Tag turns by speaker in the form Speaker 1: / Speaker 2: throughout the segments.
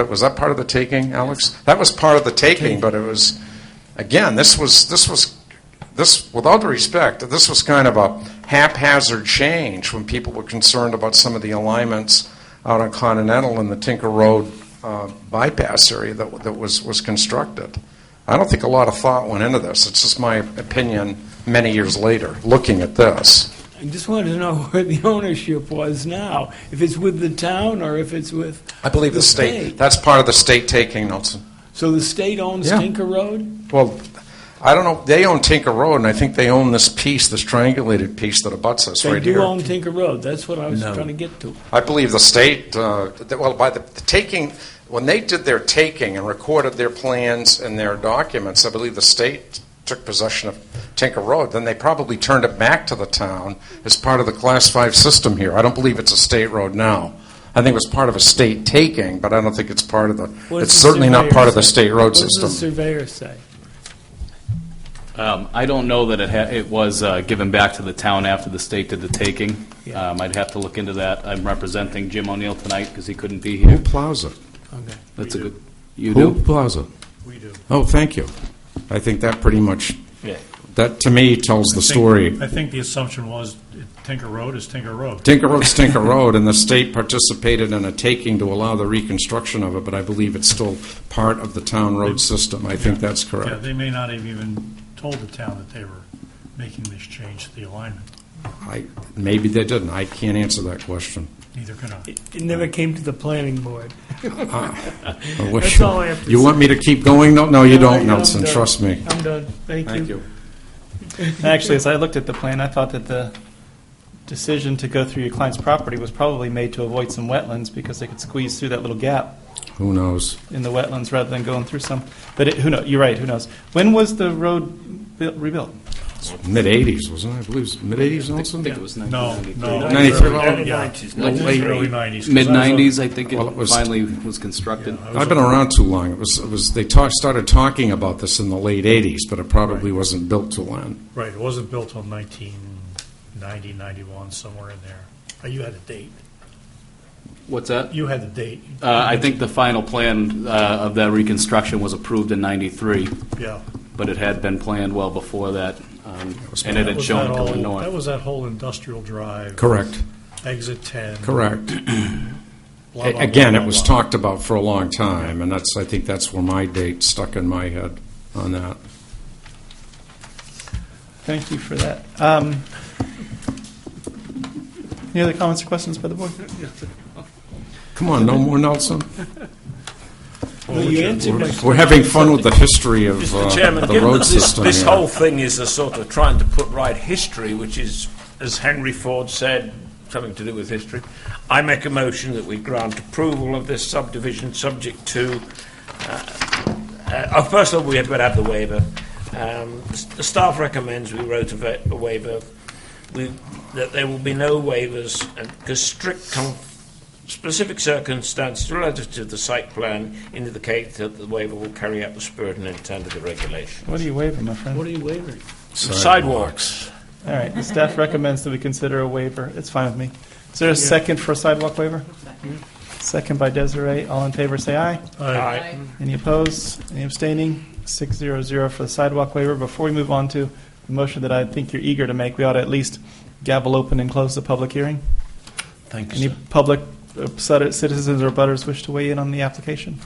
Speaker 1: But was that part of the taking, Alex? That was part of the taking, but it was, again, this was, this was, this, with all due respect, this was kind of a haphazard change when people were concerned about some of the alignments out on Continental and the Tinker Road uh, bypass area that, that was, was constructed. I don't think a lot of thought went into this. It's just my opinion many years later, looking at this.
Speaker 2: I just wanted to know where the ownership was now, if it's with the town or if it's with,
Speaker 1: I believe the
Speaker 2: The
Speaker 1: state,
Speaker 2: state.
Speaker 1: that's part of the state taking, Nelson.
Speaker 2: so the state owns
Speaker 1: Yeah.
Speaker 2: Tinker Road?
Speaker 1: Well, I don't know, they own Tinker Road, and I think they own this piece, this triangulated piece that abuts us
Speaker 2: They
Speaker 1: right
Speaker 2: do
Speaker 1: here.
Speaker 2: own Tinker Road, that's what I was trying to get to.
Speaker 1: I believe the state, uh, that- well, by the the taking, when they did their taking and recorded their plans and their documents, I believe the state took possession of Tinker Road, then they probably turned it back to the town as part of the Class 5 system here. I don't believe it's a state road now. I think it was part of a state taking, but I don't think it's part of the,
Speaker 2: What does
Speaker 1: it's
Speaker 2: the
Speaker 1: certainly not
Speaker 2: surveyor
Speaker 1: part of the
Speaker 2: say?
Speaker 1: state road
Speaker 2: What
Speaker 1: system.
Speaker 2: does the surveyor say?
Speaker 3: Um, I don't know that it ha, it was uh, given back to the town after the state did the taking.
Speaker 2: Yeah.
Speaker 3: Um, I'd have to look into that. I'm representing Jim O'Neill tonight because he couldn't be here.
Speaker 4: Plaza.
Speaker 2: Okay.
Speaker 3: That's a good, you
Speaker 4: Who
Speaker 3: do?
Speaker 4: Plaza?
Speaker 5: We do.
Speaker 1: Oh, thank you. I think that pretty much,
Speaker 3: Yeah.
Speaker 1: that to me tells the story.
Speaker 5: I think the assumption was Tinker Road is Tinker Road.
Speaker 1: Tinker Road's Tinker Road, and the state participated in a taking to allow the reconstruction of it, but I believe it's still part of the town road system. I think that's
Speaker 5: Yeah,
Speaker 1: correct.
Speaker 5: they may not have even told the town that they were making this change to the alignment.
Speaker 1: I, maybe they didn't. I can't answer that question.
Speaker 5: Neither can I.
Speaker 2: It it never came to the planning board.
Speaker 1: I wish-
Speaker 2: That's all I have to
Speaker 1: You
Speaker 2: say.
Speaker 1: want me to keep going? No, no, you
Speaker 2: No,
Speaker 1: don't,
Speaker 2: I'm
Speaker 1: Nelson,
Speaker 2: done.
Speaker 1: trust me.
Speaker 2: I'm done, thank you.
Speaker 6: Actually, as I looked at the plan, I thought that the decision to go through your client's property was probably made to avoid some wetlands because they could squeeze through that little gap
Speaker 1: Who knows?
Speaker 6: in the wetlands rather than going through some. But it, who knows? You're right. Who knows? When was the road built, rebuilt?
Speaker 1: Mid-eighties, wasn't it? I believe it's mid-eighties,
Speaker 3: I
Speaker 1: Nelson?
Speaker 3: think it was
Speaker 5: No,
Speaker 3: 1993.
Speaker 5: no.
Speaker 1: Ninety-three.
Speaker 5: Early- yeah,
Speaker 3: Late-
Speaker 5: Early nineties.
Speaker 3: Mid-90s, I think
Speaker 1: Well, it
Speaker 3: it
Speaker 1: was-
Speaker 3: finally was constructed.
Speaker 1: I've been around too long. It was, it was, they talk, started talking about this in the late eighties, but it probably wasn't built till then.
Speaker 5: Right, it wasn't built till 1990, 91, somewhere in there. Uh, You had a date.
Speaker 3: What's that?
Speaker 5: You had the date.
Speaker 3: Uh, I think the final plan uh, of that reconstruction was approved in 93,
Speaker 5: Yeah.
Speaker 3: but it had been planned well before that, um, and it
Speaker 5: That
Speaker 3: had
Speaker 5: was
Speaker 3: shown
Speaker 5: that
Speaker 3: to the
Speaker 5: whole-
Speaker 3: north.
Speaker 5: That was that whole industrial drive.
Speaker 1: Correct,
Speaker 5: Exit 10.
Speaker 1: correct.
Speaker 5: blah, blah, blah,
Speaker 1: Again, it
Speaker 5: blah,
Speaker 1: was
Speaker 5: blah.
Speaker 1: talked about for a long time, and that's, I think that's where my date stuck in my head on that.
Speaker 6: Thank you for that. Um, any other comments or questions by the board?
Speaker 1: Come on, no more Nelson?
Speaker 2: Well, you answered my
Speaker 1: We're having fun with the history of
Speaker 7: Mr.
Speaker 1: uh,
Speaker 7: Chairman,
Speaker 1: the
Speaker 7: given
Speaker 1: road
Speaker 7: that this,
Speaker 1: system
Speaker 7: this
Speaker 1: here.
Speaker 7: whole thing is a sort of trying to put right history, which is, as Henry Ford said, something to do with history, I make a motion that we grant approval of this subdivision subject to, uh, uh, oh, first of all, we had to have the waiver. Um, s- the staff recommends we wrote a, va- a waiver, we, that there will be no waivers, and because strict conf- specific circumstances relative to the site plan indicate that the waiver will carry out the spirit and intent of the regulation.
Speaker 6: What are you waving, my friend?
Speaker 2: What are you wavering?
Speaker 7: Sidewalks.
Speaker 6: All right, the staff recommends that we consider a waiver. It's fine with me. Is there a second for a sidewalk waiver? Second by Desiree. All in favor, say aye.
Speaker 5: Aye.
Speaker 6: Any opposed? Any abstaining? Six zero zero for the sidewalk waiver. Before we move on to the motion that I think you're eager to make, we ought to at least gavel open and close the public hearing.
Speaker 7: Thank
Speaker 6: Any public uh, citi- citizens or butters wish to weigh in on the application?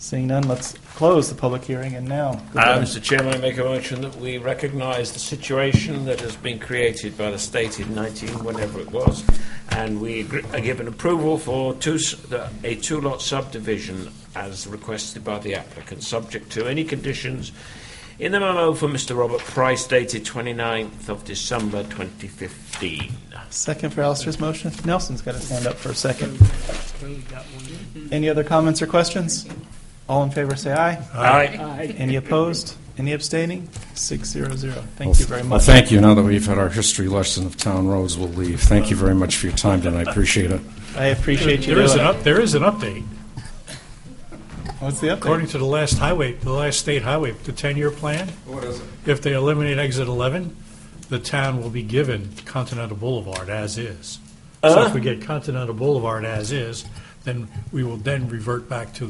Speaker 6: Seeing none, let's close the public hearing and now. go
Speaker 7: Uh,
Speaker 6: ahead.
Speaker 7: Mr. Chairman, I make a motion that we recognise the situation that has been created by the state in 19, whenever it was, and we agree- are given approval for two, s- the- a two-lot subdivision as requested by the applicant, subject to any conditions in the memo from Mr. Robert Price dated 29th of December 2015.
Speaker 6: Second for Alistair's motion. Nelson's got to stand up for a second. Any other comments or questions? All in favor, say aye.
Speaker 7: Aye.
Speaker 6: Any opposed? Any abstaining? Six zero zero. Thank you very
Speaker 1: Well,
Speaker 6: much.
Speaker 1: thank you. Now that we've had our history lesson of town roads, we'll leave. Thank you very much for your time tonight. I appreciate it.
Speaker 6: I appreciate you
Speaker 5: There is
Speaker 6: doing
Speaker 5: an
Speaker 6: it.
Speaker 5: up, there is an update.
Speaker 6: What's the update?
Speaker 5: According to the last highway, the last state highway, the 10-year plan,
Speaker 1: What is it?
Speaker 5: if they eliminate exit 11, the town will be given Continental Boulevard as is. So if we get Continental Boulevard as is, then we will then revert back to